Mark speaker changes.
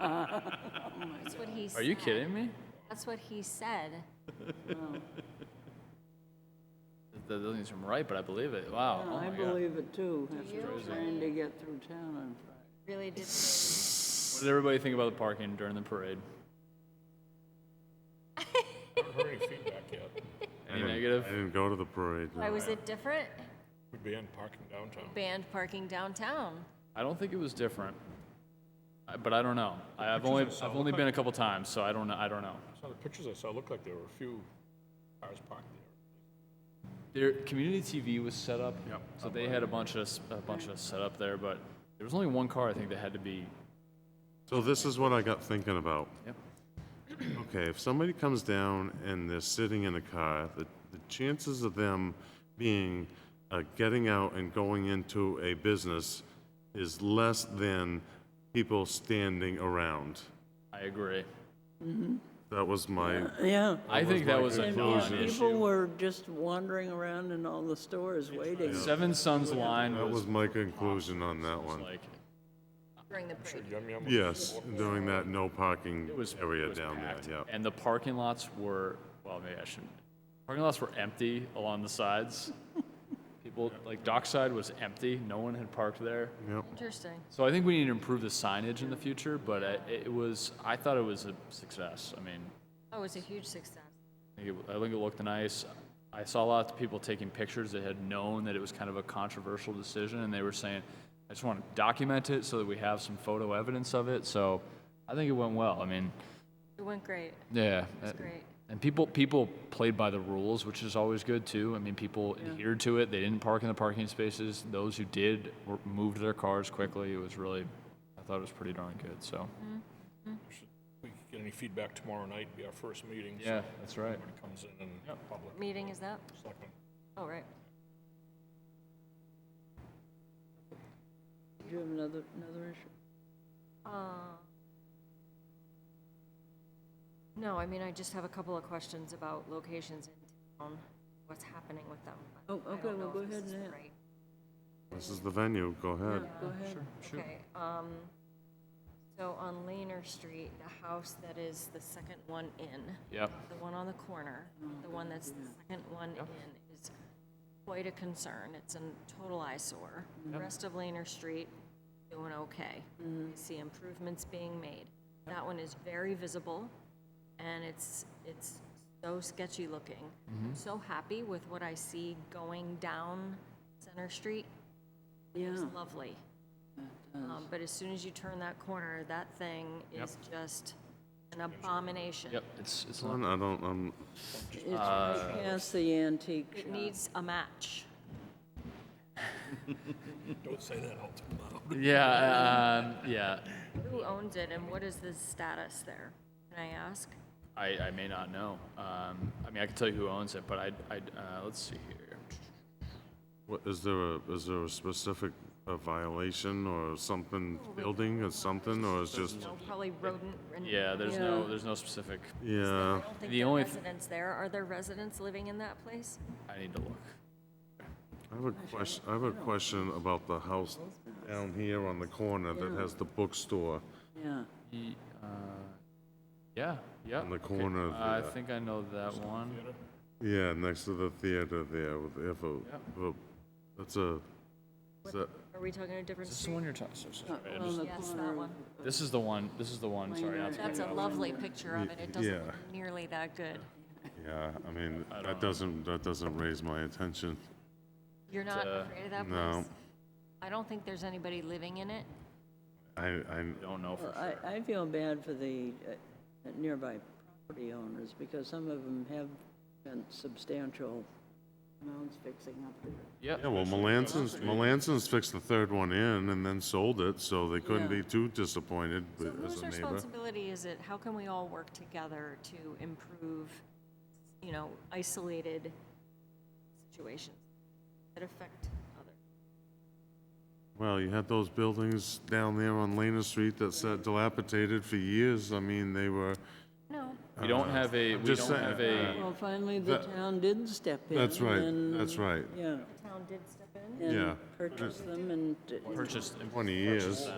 Speaker 1: That's what he said.
Speaker 2: Are you kidding me?
Speaker 1: That's what he said.
Speaker 2: That doesn't seem right, but I believe it. Wow. Oh
Speaker 3: I
Speaker 2: my God.
Speaker 3: believe it too, after
Speaker 1: you?
Speaker 3: trying to get through town on Friday.
Speaker 1: Really did.
Speaker 2: What did everybody think about the parking during the parade?
Speaker 4: haven't heard any feedback yet.
Speaker 2: Any
Speaker 5: I didn't-
Speaker 2: negative?
Speaker 5: I didn't go to the parade.
Speaker 1: Why
Speaker 5: no.
Speaker 1: was it different?
Speaker 4: We'd be in parking downtown.
Speaker 1: Banned parking downtown.
Speaker 2: I don't think it was different, I- but I don't know. I- I've only
Speaker 4: pictures I saw
Speaker 2: I've only
Speaker 4: look
Speaker 2: been a couple times, so I don't know. I don't know.
Speaker 4: Some of the pictures I saw looked like there were a few cars parked there.
Speaker 2: Their community TV was set up,
Speaker 4: Yep.
Speaker 2: so they had a bunch of s- a bunch of set up there, but there was only one car I think that had to be.
Speaker 5: So this is what I got thinking about.
Speaker 2: Yep.
Speaker 5: Okay, if somebody comes down and they're sitting in a car, the, the chances of them being, uh, getting out and going into a business is less than people standing around.
Speaker 2: I agree.
Speaker 5: That was my,
Speaker 3: Yeah.
Speaker 2: I think that was a
Speaker 3: And yeah, people
Speaker 2: non-issue.
Speaker 3: were just wandering around in all the stores waiting.
Speaker 2: Seven Suns line
Speaker 5: that
Speaker 2: was
Speaker 5: was my conclusion on that one.
Speaker 2: like
Speaker 1: During the parade.
Speaker 4: Yum Yum was-
Speaker 5: Yes, during that no parking
Speaker 2: it was it
Speaker 5: area
Speaker 2: was
Speaker 5: down
Speaker 2: packed,
Speaker 5: there, yeah.
Speaker 2: and the parking lots were well, maybe I shouldn't. Parking lots were empty along the sides. People like dockside was empty. No one had parked there.
Speaker 5: Yep.
Speaker 1: Interesting.
Speaker 2: So I think we need to improve the signage in the future, but I- it was, I thought it was a success. I mean,
Speaker 1: Oh, it was a huge success.
Speaker 2: I think it- I think it looked nice. I saw lots of people taking pictures that had known that it was kind of a controversial decision, and they were saying, I just want to document it so that we have some photo evidence of it. So I think it went well. I mean,
Speaker 1: It went great.
Speaker 2: yeah. uh,
Speaker 1: Great.
Speaker 2: And people, people played by the rules, which is always good too. I mean, people adhered to it. They didn't park in the parking spaces. Those who did were, moved their cars quickly. It was really, I thought it was pretty darn good. So.
Speaker 4: We could get any feedback tomorrow night, be our first meeting. so
Speaker 2: Yeah, that's right.
Speaker 4: Everybody comes in and public,
Speaker 1: Meeting is that?
Speaker 4: selectmen.
Speaker 1: Oh, right.
Speaker 3: Do you have another, another issue?
Speaker 1: Uh, No, I mean, I just have a couple of questions about locations in town, what's happening with them. but
Speaker 3: Oh,
Speaker 1: I
Speaker 3: okay,
Speaker 1: don't
Speaker 3: well,
Speaker 1: know
Speaker 3: go
Speaker 1: if this
Speaker 3: ahead
Speaker 1: is
Speaker 3: and
Speaker 1: the
Speaker 3: a-
Speaker 1: right-
Speaker 5: This is the venue, go ahead.
Speaker 3: Go ahead.
Speaker 1: Okay, um, so on Laner Street, the house that is the second one in,
Speaker 2: Yep.
Speaker 1: the one on the corner, the one that's the second one in is quite a concern. It's a total eyesore. The rest of Laner Street, doing okay. You see improvements being made. That one is very visible, and it's, it's so sketchy looking. I'm so happy with what I see going down Center Street.
Speaker 3: Yeah.
Speaker 1: It's lovely. Um, But as soon as you turn that corner, that thing is just an abomination.
Speaker 2: Yep. It's it's
Speaker 5: One, I don't, um,
Speaker 3: It's
Speaker 5: Uh,
Speaker 3: right past the antique shop.
Speaker 1: It needs a match.
Speaker 4: Don't say that out loud.
Speaker 2: yeah um, yeah.
Speaker 1: Who owns it and what is the status there? Can I ask?
Speaker 2: I, I may not know. Um, I mean, I can tell you who owns it, but I I uh, let's see here.
Speaker 5: what, is there a, is there a specific uh, violation or something, building or something, or it's just,
Speaker 1: No, Oh, probably rodent. and-
Speaker 2: Yeah, there's no
Speaker 3: Yeah.
Speaker 2: there's no specific.
Speaker 1: I
Speaker 5: yeah,
Speaker 1: don't think
Speaker 2: The
Speaker 1: there are
Speaker 2: only th-
Speaker 1: residents there. Are there residents living in that place?
Speaker 2: I need to look.
Speaker 5: I have a question, I have a question about the house down here on the corner that has the bookstore
Speaker 3: Yeah.
Speaker 2: He, uh, yeah yeah.
Speaker 5: on the uh, corner
Speaker 2: I
Speaker 5: there.
Speaker 2: think I know that one.
Speaker 5: Yeah, next to the theater there, with, if a, if a- that's a, is that,
Speaker 1: Are we talking a different
Speaker 2: Is this
Speaker 1: street?
Speaker 2: the one you're talking? So, so, sorry, I
Speaker 3: On
Speaker 2: just-
Speaker 3: the
Speaker 1: Yes,
Speaker 3: corner
Speaker 1: that
Speaker 3: of-
Speaker 1: one.
Speaker 2: this is the one. This is the one. Sorry, not to
Speaker 1: That's a
Speaker 2: cut you off.
Speaker 1: lovely picture of it. It doesn't
Speaker 5: yeah.
Speaker 1: look nearly that good.
Speaker 5: yeah, I mean, that doesn't, that doesn't raise my attention.
Speaker 1: You're not
Speaker 2: uh,
Speaker 1: afraid of that
Speaker 5: no.
Speaker 1: place? I don't think there's anybody living in it.
Speaker 5: I, I,
Speaker 2: Don't know
Speaker 5: Uh,
Speaker 2: for
Speaker 3: Well,
Speaker 2: sure.
Speaker 3: I, I feel bad for the uh, nearby property owners, because some of them have spent substantial amounts fixing up there.
Speaker 2: Yeah.
Speaker 5: yeah, well, Melanson's, Melanson's fixed the third one in and then sold it, so they couldn't
Speaker 3: Yeah.
Speaker 5: be too disappointed
Speaker 1: So
Speaker 5: with- as
Speaker 1: whose
Speaker 5: a neighbor.
Speaker 1: responsibility is it? How can we all work together to improve, you know, isolated situations that affect others?
Speaker 5: Well, you had those buildings down there on Lena Street that sat dilapidated for years, I mean, they were,
Speaker 1: No,
Speaker 5: Uh,
Speaker 2: We don't have a we don't
Speaker 5: just saying, uh,
Speaker 2: have a.
Speaker 3: Well, finally, the
Speaker 5: That-
Speaker 3: town did step in.
Speaker 5: that's right,
Speaker 3: and-
Speaker 5: that's right,
Speaker 3: Yeah.
Speaker 1: the town did step in.
Speaker 3: and
Speaker 5: Yeah.
Speaker 3: Purchased them and. uh,
Speaker 2: purchased
Speaker 5: twenty years.